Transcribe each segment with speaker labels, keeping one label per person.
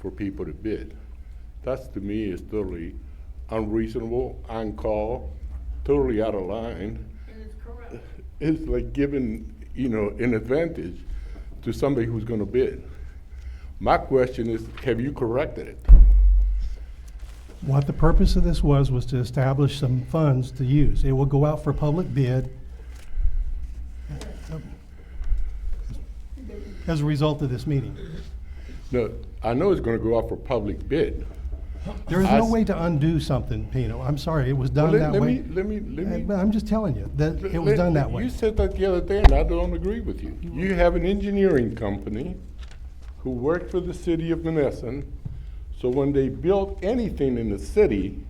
Speaker 1: for people to bid. That's to me is totally unreasonable, on call, totally out of line.
Speaker 2: It is corrupt.
Speaker 1: It's like giving, you know, an advantage to somebody who's gonna bid. My question is, have you corrected it?
Speaker 3: What the purpose of this was, was to establish some funds to use. It will go out for public bid. As a result of this meeting.
Speaker 1: No, I know it's gonna go out for public bid.
Speaker 3: There is
Speaker 1: I
Speaker 3: no
Speaker 1: s-
Speaker 3: way to undo something, Pino. I'm sorry, it was done
Speaker 1: Let-
Speaker 3: that
Speaker 1: let
Speaker 3: way.
Speaker 1: me- Let me, let
Speaker 3: Uh,
Speaker 1: me.
Speaker 3: But I'm just telling you, that it was
Speaker 1: Let-
Speaker 3: done that way.
Speaker 1: You said that the other day, and I don't agree with you. You have an engineering company who worked for the city of Menneson, so when they built anything in the city,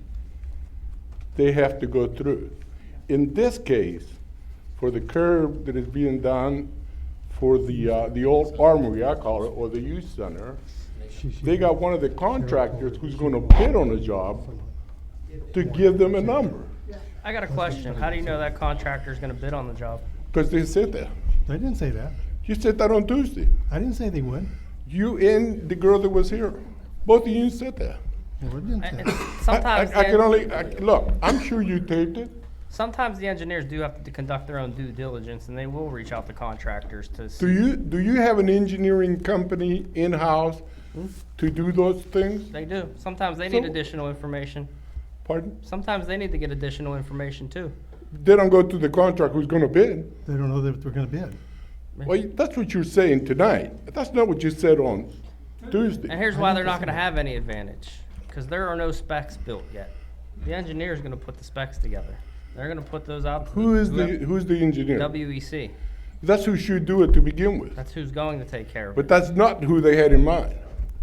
Speaker 1: they have to go through. In this case, for the curb that is being done for the, uh, the old armory, I call it, or the youth center, they got one of the contractors who's gonna bid on the job to give them a number,
Speaker 4: I got a question. How do you know that contractor's gonna bid on the job?
Speaker 1: because they sit there.
Speaker 3: They didn't say that.
Speaker 1: You said that on Tuesday.
Speaker 3: I didn't say they would.
Speaker 1: You and the girl that was here, both of you said that.
Speaker 3: Well, it didn't
Speaker 4: And-
Speaker 3: say
Speaker 4: and
Speaker 3: that.
Speaker 1: I-
Speaker 4: Sometimes,
Speaker 1: I, I can
Speaker 4: the-
Speaker 1: only, I, look, I'm sure you taped it.
Speaker 4: sometimes the engineers do have to conduct their own due diligence and they will reach out to contractors to
Speaker 1: Do
Speaker 4: see.
Speaker 1: you, do you have an engineering company in-house to do those things?
Speaker 4: They do. Sometimes they need
Speaker 1: So-
Speaker 4: additional information.
Speaker 1: Pardon?
Speaker 4: Sometimes they need to get additional information too.
Speaker 1: They don't go to the contract who's gonna bid.
Speaker 3: They don't know that they're gonna bid.
Speaker 1: Well, that's what you're saying tonight. That's not what you said on
Speaker 4: And
Speaker 1: Tuesday.
Speaker 4: here's why they're not gonna have any advantage, because there are no specs built yet. The engineer's gonna put the specs together. They're gonna put those out to
Speaker 1: Who is the,
Speaker 4: whoever-
Speaker 1: who's the engineer?
Speaker 4: WEC.
Speaker 1: That's who should do it to begin with.
Speaker 4: That's who's going to take care of
Speaker 1: But
Speaker 4: it.
Speaker 1: that's not who they had in mind.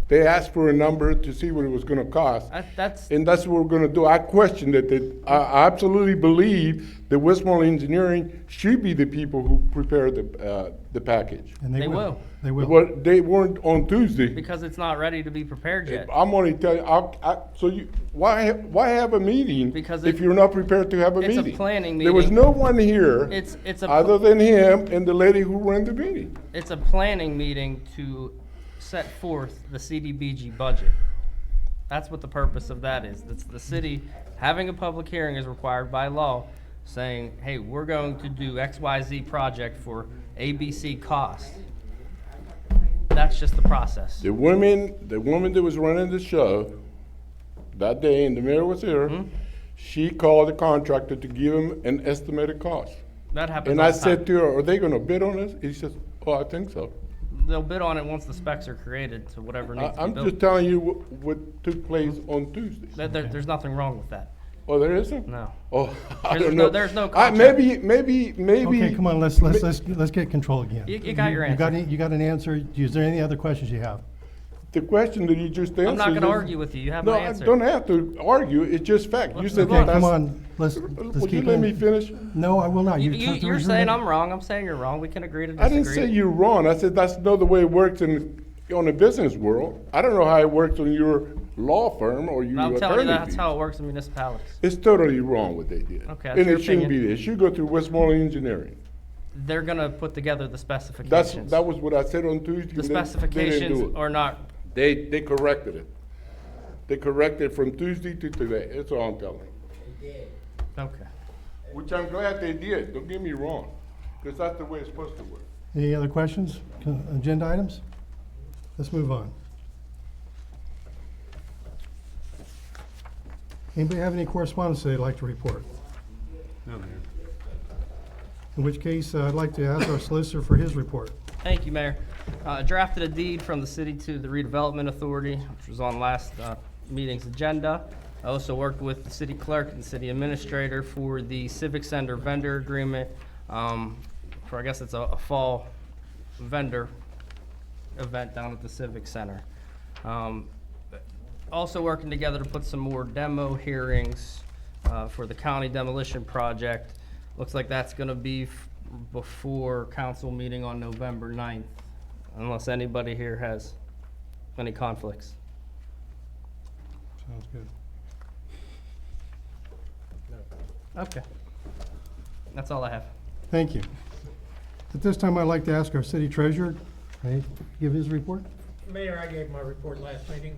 Speaker 1: They asked for a number to see what it was gonna cost.
Speaker 4: That- That's,
Speaker 1: And that's what we're gonna do. I question that, that, I I absolutely believe that Westmoreland Engineering should be the people who prepare the, uh, the package.
Speaker 3: And they
Speaker 4: They
Speaker 3: will.
Speaker 4: will.
Speaker 3: They will.
Speaker 1: But they weren't on Tuesday.
Speaker 4: because it's not ready to be prepared yet.
Speaker 1: I'm only telling, I, I, so you, why, ha- why have a meeting
Speaker 4: Because
Speaker 1: if
Speaker 4: it-
Speaker 1: you're not prepared to have a
Speaker 4: it's
Speaker 1: meeting?
Speaker 4: a planning
Speaker 1: There was
Speaker 4: meeting.
Speaker 1: no one here.
Speaker 4: It's- it's a pl-
Speaker 1: Other than him and the lady who ran the meeting.
Speaker 4: It's a planning meeting to set forth the CDBG budget. That's what the purpose of that is. That's the city, having a public hearing is required by law, saying, hey, we're going to do XYZ project for ABC cost. That's just the process.
Speaker 1: The woman, the woman that was running the show that day, and the mayor was here,
Speaker 4: Hmm?
Speaker 1: she called the contractor to give him an estimated cost.
Speaker 4: That happens
Speaker 1: And I
Speaker 4: all the
Speaker 1: said
Speaker 4: time.
Speaker 1: to her, "Are they going to bid on this?" He says, "Oh, I think so."
Speaker 4: They'll bid on it once the specs are created to whatever
Speaker 1: I,
Speaker 4: needs to Hmm? be
Speaker 1: I'm just
Speaker 4: built.
Speaker 1: telling you what, what took place on Tuesday.
Speaker 4: There- there- there's nothing wrong with that,
Speaker 1: Oh, there isn't.
Speaker 4: no.
Speaker 1: Oh, I
Speaker 4: There's
Speaker 1: don't
Speaker 4: no-
Speaker 1: know.
Speaker 4: there's no
Speaker 1: I,
Speaker 4: contract.
Speaker 1: maybe, maybe, maybe.
Speaker 3: Okay, come on, let's, let's, let's, let's get control again.
Speaker 4: You- you got your
Speaker 3: You got,
Speaker 4: answer.
Speaker 3: any- you got an answer? Is there any other questions you have?
Speaker 1: The question that you just answered.
Speaker 4: I'm not gonna
Speaker 1: is-
Speaker 4: argue with you, you have
Speaker 1: No,
Speaker 4: my
Speaker 1: I
Speaker 4: answer.
Speaker 1: don't have to argue. It's just fact. You said
Speaker 3: Okay,
Speaker 1: that.
Speaker 3: come on, let's, let's
Speaker 1: Would you
Speaker 3: keep
Speaker 1: let me
Speaker 3: going.
Speaker 1: finish?
Speaker 3: No, I will not.
Speaker 4: You,
Speaker 3: You're
Speaker 4: you,
Speaker 3: trying to
Speaker 4: you're
Speaker 3: resume
Speaker 4: saying
Speaker 3: it.
Speaker 4: I'm wrong, I'm saying you're wrong, we can agree to
Speaker 1: I
Speaker 4: disagree.
Speaker 1: didn't say you're wrong. I said that's not the way it works in on the business world. I don't know how it works on your law firm or your
Speaker 4: I'm
Speaker 1: attorney.
Speaker 4: telling you, that's
Speaker 1: fees.
Speaker 4: how it works in municipalities.
Speaker 1: It's totally wrong what they did.
Speaker 4: Okay, that's
Speaker 1: And
Speaker 4: your
Speaker 1: it shouldn't
Speaker 4: opinion.
Speaker 1: be there. It should go through Westmoreland Engineering.
Speaker 4: They're gonna put together the
Speaker 1: That's,
Speaker 4: specifications.
Speaker 1: that was what I said on Tuesday. and they- they didn't
Speaker 4: The
Speaker 1: do
Speaker 4: specifications
Speaker 1: it.
Speaker 4: are not,
Speaker 1: They, they corrected it. They corrected from Tuesday to today. That's all I'm telling you.
Speaker 4: okay.
Speaker 1: Which I'm glad they did. Don't get me wrong. Because that's the way it's supposed to work.
Speaker 3: Any other questions, Con- agenda items? Let's move on. Anybody have any correspondence they'd like to report? In which case, uh, I'd like to ask our solicitor for his report.
Speaker 4: Thank you, Mayor. Uh, drafted a deed from the city to the redevelopment authority, which was on last, uh, meeting's agenda. I also worked with the city clerk and city administrator for the civic center vendor agreement, um, for, I guess it's a, a fall vendor event down at the civic center. Um, also working together to put some more demo hearings uh, for the county demolition project. Looks like that's going to be f- before council meeting on November 9th, unless anybody here has any conflicts.
Speaker 3: Sounds good.
Speaker 4: Okay. That's all I have.
Speaker 3: Thank you. At this time, I'd like to ask our city treasurer, may I give his report?
Speaker 5: Mayor, I gave my report last meeting.